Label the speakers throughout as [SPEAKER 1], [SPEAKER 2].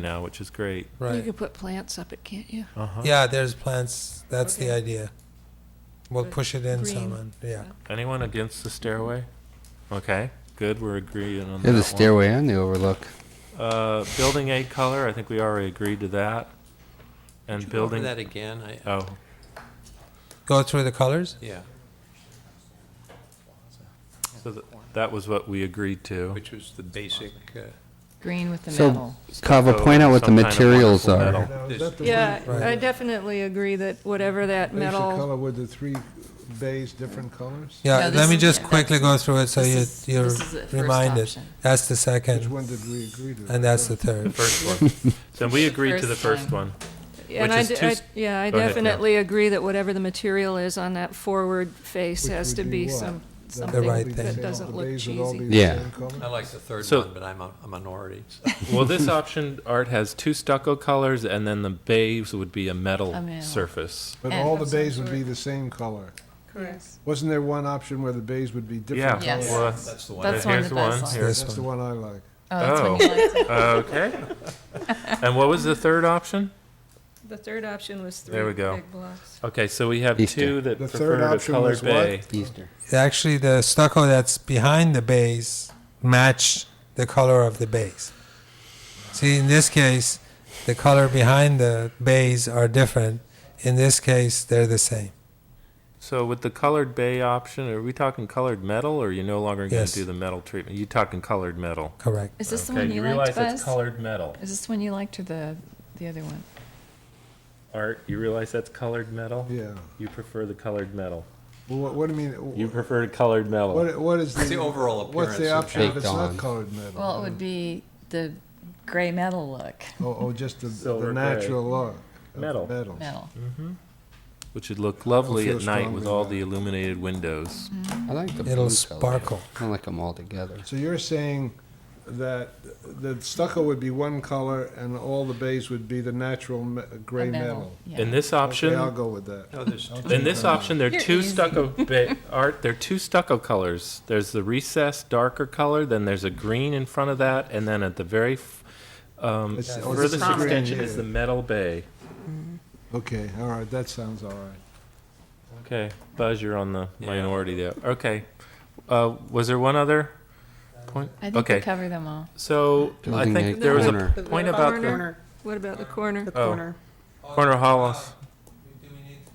[SPEAKER 1] now, which is great.
[SPEAKER 2] You
[SPEAKER 3] Right.
[SPEAKER 2] could put plants up it, can't you?
[SPEAKER 1] Uh-huh.
[SPEAKER 3] Yeah, there's plants. That's the
[SPEAKER 2] Okay.
[SPEAKER 3] idea. We'll
[SPEAKER 2] Good.
[SPEAKER 3] push it in
[SPEAKER 2] Green.
[SPEAKER 3] some, and yeah.
[SPEAKER 1] Anyone against the stairway? Okay, good. We're agreeing on
[SPEAKER 4] Yeah,
[SPEAKER 1] that
[SPEAKER 4] the
[SPEAKER 1] one.
[SPEAKER 4] stairway and the overlook.
[SPEAKER 1] Uh, building A color. I think we already agreed to that. And
[SPEAKER 5] Could you go over
[SPEAKER 1] building.
[SPEAKER 5] that again, I,
[SPEAKER 1] Oh,
[SPEAKER 3] Go through the colors.
[SPEAKER 5] yeah,
[SPEAKER 1] so th- that was what we agreed to.
[SPEAKER 5] which was the basic, uh,
[SPEAKER 6] Green with the
[SPEAKER 4] So,
[SPEAKER 6] metal.
[SPEAKER 4] Kava,
[SPEAKER 1] So
[SPEAKER 4] point out what the
[SPEAKER 1] some kind of
[SPEAKER 4] materials
[SPEAKER 1] wonderful
[SPEAKER 4] are.
[SPEAKER 1] metal.
[SPEAKER 5] This-
[SPEAKER 2] Yeah,
[SPEAKER 3] Right.
[SPEAKER 2] I definitely agree that whatever that
[SPEAKER 7] Base of
[SPEAKER 2] metal,
[SPEAKER 7] color with the three bays, different colors?
[SPEAKER 3] Yeah.
[SPEAKER 6] No, this
[SPEAKER 3] let me
[SPEAKER 6] is-
[SPEAKER 3] just
[SPEAKER 6] yeah,
[SPEAKER 3] quickly go through it so
[SPEAKER 6] This
[SPEAKER 3] you
[SPEAKER 6] is-
[SPEAKER 3] you're
[SPEAKER 6] this is the first
[SPEAKER 3] reminded.
[SPEAKER 6] option.
[SPEAKER 3] That's the
[SPEAKER 7] Which
[SPEAKER 3] second,
[SPEAKER 7] one did we agree to?
[SPEAKER 3] and that's
[SPEAKER 7] I
[SPEAKER 3] the third.
[SPEAKER 1] First one. Then we agreed to the
[SPEAKER 6] First
[SPEAKER 1] first
[SPEAKER 6] time.
[SPEAKER 1] one.
[SPEAKER 2] and
[SPEAKER 1] Which
[SPEAKER 2] I,
[SPEAKER 1] is
[SPEAKER 2] d-
[SPEAKER 1] two
[SPEAKER 2] I-
[SPEAKER 1] s-
[SPEAKER 2] yeah, I
[SPEAKER 1] Go ahead, Carol.
[SPEAKER 2] definitely agree that whatever the material is on that forward face
[SPEAKER 7] Which
[SPEAKER 2] has
[SPEAKER 7] would
[SPEAKER 2] to
[SPEAKER 7] be
[SPEAKER 2] be
[SPEAKER 7] what?
[SPEAKER 2] some,
[SPEAKER 7] don't
[SPEAKER 2] something
[SPEAKER 3] right
[SPEAKER 7] think
[SPEAKER 3] thing.
[SPEAKER 2] that
[SPEAKER 7] the
[SPEAKER 2] doesn't look
[SPEAKER 7] bays would all be
[SPEAKER 2] cheesy.
[SPEAKER 7] the
[SPEAKER 4] Yeah.
[SPEAKER 7] same color?
[SPEAKER 5] I like the third
[SPEAKER 1] So-
[SPEAKER 5] one, but I'm a a minority. so-
[SPEAKER 1] Well, this option art has two stucco colors, and then the bays would be a metal,
[SPEAKER 6] A metal.
[SPEAKER 1] surface.
[SPEAKER 7] But
[SPEAKER 6] And
[SPEAKER 7] all the
[SPEAKER 6] of some
[SPEAKER 7] bays would
[SPEAKER 6] sort.
[SPEAKER 7] be the same color.
[SPEAKER 2] Correct.
[SPEAKER 7] Wasn't there one option where the bays would be
[SPEAKER 1] Yeah.
[SPEAKER 7] different
[SPEAKER 6] Yes.
[SPEAKER 1] Well,
[SPEAKER 7] colors?
[SPEAKER 1] that's-
[SPEAKER 5] That's the one.
[SPEAKER 6] That's
[SPEAKER 1] and
[SPEAKER 6] one
[SPEAKER 1] here's
[SPEAKER 6] that I
[SPEAKER 1] one.
[SPEAKER 6] saw.
[SPEAKER 1] Here's
[SPEAKER 3] This
[SPEAKER 7] That's the
[SPEAKER 3] one.
[SPEAKER 7] one I like.
[SPEAKER 6] Oh, that's
[SPEAKER 1] Oh.
[SPEAKER 6] when you liked it.
[SPEAKER 1] okay. and what was the third option?
[SPEAKER 2] The third option was
[SPEAKER 1] There we go.
[SPEAKER 2] blocks.
[SPEAKER 1] Okay, so we have
[SPEAKER 4] Easter.
[SPEAKER 1] two that
[SPEAKER 7] The
[SPEAKER 1] prefer
[SPEAKER 7] third
[SPEAKER 1] to
[SPEAKER 7] option
[SPEAKER 1] color
[SPEAKER 7] was what?
[SPEAKER 1] bay.
[SPEAKER 4] Easter.
[SPEAKER 3] Actually, the stucco that's behind the base match the color of the base. See, in this case, the color behind the base are different. In this case, they're the same.
[SPEAKER 1] So with the colored bay option, are we talking colored metal, or are you no longer going to
[SPEAKER 3] Yes.
[SPEAKER 1] do the metal treatment? You talking colored metal?
[SPEAKER 3] Correct.
[SPEAKER 6] Is this the
[SPEAKER 1] Okay,
[SPEAKER 6] one you liked,
[SPEAKER 1] realize it's
[SPEAKER 6] Buzz?
[SPEAKER 1] colored metal
[SPEAKER 6] Is this the one you liked or the, the other one?
[SPEAKER 1] art. You realize that's colored metal.
[SPEAKER 7] Yeah.
[SPEAKER 1] You prefer the colored metal.
[SPEAKER 7] Well, what, what do you mean?
[SPEAKER 1] You
[SPEAKER 7] wh-
[SPEAKER 1] prefer colored metal.
[SPEAKER 7] What, what is the?
[SPEAKER 5] It's the overall
[SPEAKER 7] What's
[SPEAKER 5] appearance
[SPEAKER 7] the
[SPEAKER 5] of
[SPEAKER 7] option if it's
[SPEAKER 4] Baked
[SPEAKER 7] not
[SPEAKER 4] on.
[SPEAKER 7] colored metal?
[SPEAKER 6] Well, it would be the gray metal look,
[SPEAKER 7] Oh, oh, just the,
[SPEAKER 1] Silver
[SPEAKER 7] the natural look. of
[SPEAKER 1] Metal.
[SPEAKER 7] Metal.
[SPEAKER 6] metal.
[SPEAKER 1] Which would look lovely
[SPEAKER 7] I feel
[SPEAKER 1] at night with
[SPEAKER 7] strongly
[SPEAKER 1] all
[SPEAKER 7] about
[SPEAKER 1] the
[SPEAKER 7] it.
[SPEAKER 1] illuminated windows.
[SPEAKER 4] I like the
[SPEAKER 3] It'll
[SPEAKER 4] blue
[SPEAKER 3] sparkle.
[SPEAKER 4] Color. I like them all together.
[SPEAKER 7] So you're saying that the stucco would be one color and all the bays would be the natural me-
[SPEAKER 6] The
[SPEAKER 7] gray metal?
[SPEAKER 6] yeah.
[SPEAKER 1] In this
[SPEAKER 7] Okay, I'll
[SPEAKER 1] option,
[SPEAKER 7] go with that.
[SPEAKER 5] No, there's two.
[SPEAKER 1] in this option, there are
[SPEAKER 6] You're
[SPEAKER 1] two
[SPEAKER 6] easy.
[SPEAKER 1] stucco ba- art. There are two stucco colors. There's the recessed darker color. Then there's a green in front of that, and then at the very f- um,
[SPEAKER 7] It's- oh, this
[SPEAKER 1] furthest
[SPEAKER 7] is green,
[SPEAKER 1] extension
[SPEAKER 7] yeah.
[SPEAKER 1] is the metal bay.
[SPEAKER 7] Okay, all right, that sounds all right.
[SPEAKER 1] Okay, Buzz, you're on the minority there. Okay, uh, was there one other point?
[SPEAKER 6] I think we
[SPEAKER 1] Okay,
[SPEAKER 6] covered them all.
[SPEAKER 1] so I
[SPEAKER 4] Building
[SPEAKER 1] think
[SPEAKER 4] a
[SPEAKER 1] there was a
[SPEAKER 4] corner.
[SPEAKER 1] point about the
[SPEAKER 2] Corner. What about the corner?
[SPEAKER 1] Oh. corner. corner Hollis,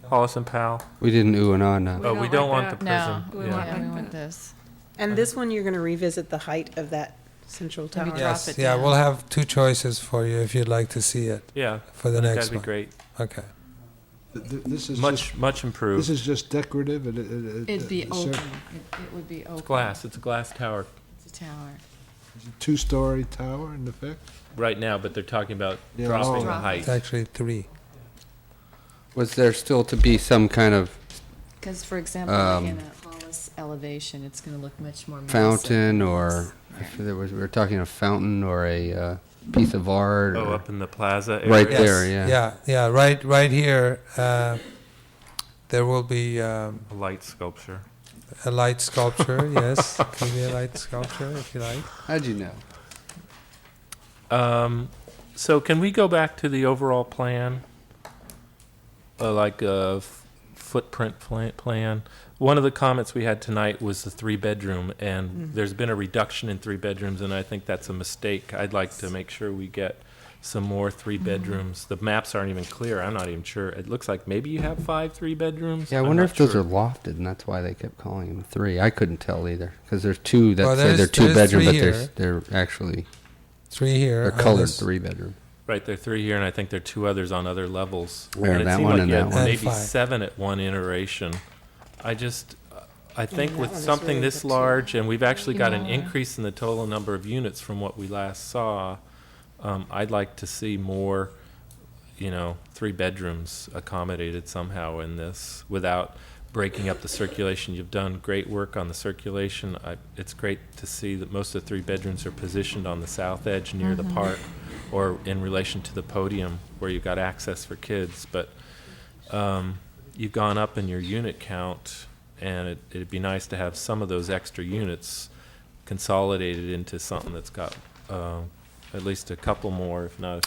[SPEAKER 1] Hollis and Powell.
[SPEAKER 4] We didn't ooh and ah now.
[SPEAKER 1] Oh, we
[SPEAKER 2] don't
[SPEAKER 1] don't
[SPEAKER 2] like
[SPEAKER 1] want the
[SPEAKER 6] No,
[SPEAKER 1] prism.
[SPEAKER 2] We
[SPEAKER 1] Yeah.
[SPEAKER 2] want
[SPEAKER 6] yeah, we
[SPEAKER 2] like
[SPEAKER 6] want this.
[SPEAKER 8] And this one, you're going to revisit the height of that central
[SPEAKER 6] Maybe
[SPEAKER 8] tower.
[SPEAKER 6] drop
[SPEAKER 3] Yes,
[SPEAKER 6] it
[SPEAKER 3] yeah,
[SPEAKER 6] down.
[SPEAKER 3] we'll have two choices for you if you'd like to see it
[SPEAKER 1] Yeah,
[SPEAKER 3] for the
[SPEAKER 1] that'd
[SPEAKER 3] next
[SPEAKER 1] be
[SPEAKER 3] one.
[SPEAKER 1] great.
[SPEAKER 3] Okay.
[SPEAKER 7] Th- th- This is just,
[SPEAKER 1] Much, much
[SPEAKER 7] this
[SPEAKER 1] improved.
[SPEAKER 7] is just decorative, it, it, it.
[SPEAKER 6] It'd be
[SPEAKER 7] it-
[SPEAKER 6] open.
[SPEAKER 7] it's
[SPEAKER 6] It
[SPEAKER 7] a
[SPEAKER 6] it would be open.
[SPEAKER 1] Glass, it's a glass tower
[SPEAKER 6] It's a tower.
[SPEAKER 7] Two-story tower in effect?
[SPEAKER 1] right now, but they're talking about
[SPEAKER 7] Yeah,
[SPEAKER 1] dropping
[SPEAKER 7] oh.
[SPEAKER 1] the height.
[SPEAKER 3] It's actually three.
[SPEAKER 4] Was there still to be some kind of
[SPEAKER 6] Because, for example, like
[SPEAKER 4] Um,
[SPEAKER 6] in a Hollis elevation, it's going to look much more massive.
[SPEAKER 4] fountain or if there was? We were talking a fountain or a uh, piece of art.
[SPEAKER 1] Oh,
[SPEAKER 4] Or,
[SPEAKER 1] up in the plaza area.
[SPEAKER 4] Right there, yeah.
[SPEAKER 3] Yeah, yeah, right, right here, uh, there will be um,
[SPEAKER 1] A light sculpture.
[SPEAKER 3] a light sculpture, yes. Could be a light sculpture if you like.
[SPEAKER 4] How'd you know?
[SPEAKER 1] Um, so can we go back to the overall plan? Uh, like a f- footprint pla- plan? One of the comments we had tonight was the three bedroom, and there's been a reduction in three bedrooms, and I think that's a mistake. I'd like to make sure we get some more three bedrooms. The maps aren't even clear. I'm not even sure. It looks like maybe you have five three bedrooms.
[SPEAKER 4] Yeah, I
[SPEAKER 1] I'm
[SPEAKER 4] wonder
[SPEAKER 1] not
[SPEAKER 4] if those
[SPEAKER 1] sure.
[SPEAKER 4] are lofted, and that's why they kept calling them three. I couldn't tell either because there's two that
[SPEAKER 3] Well,
[SPEAKER 4] say they're
[SPEAKER 3] there's-
[SPEAKER 4] two
[SPEAKER 3] there's
[SPEAKER 4] bedroom, but
[SPEAKER 3] three
[SPEAKER 4] they're
[SPEAKER 3] here.
[SPEAKER 4] s- they're actually
[SPEAKER 3] Three here.
[SPEAKER 4] they're
[SPEAKER 3] on
[SPEAKER 4] colored
[SPEAKER 3] this-
[SPEAKER 4] three bedroom.
[SPEAKER 1] Right, there are three here, and I think there are two others on other levels.
[SPEAKER 4] There,
[SPEAKER 1] and it
[SPEAKER 4] that
[SPEAKER 1] seemed
[SPEAKER 4] one
[SPEAKER 1] like
[SPEAKER 4] and
[SPEAKER 1] you
[SPEAKER 4] that
[SPEAKER 1] had
[SPEAKER 4] one.
[SPEAKER 3] And
[SPEAKER 1] Maybe
[SPEAKER 3] five.
[SPEAKER 1] seven at one iteration. I just, I think
[SPEAKER 8] that
[SPEAKER 1] with
[SPEAKER 8] one is
[SPEAKER 1] something
[SPEAKER 8] really
[SPEAKER 1] this
[SPEAKER 8] good, too.
[SPEAKER 1] large, and we've actually got an
[SPEAKER 6] Yeah.
[SPEAKER 1] increase in the total number of units from what we last saw, um, I'd like to see more, you know, three bedrooms accommodated somehow in this without breaking up the circulation. You've done great work on the circulation. I, it's great to see that most of the three bedrooms are positioned on the south edge near
[SPEAKER 8] Mm-hmm.
[SPEAKER 1] the park or in relation to the podium where you've got access for kids. But um, you've gone up in your unit count, and it, it'd be nice to have some of those extra units uh, consolidated into something that's got um, at least a couple more, if not a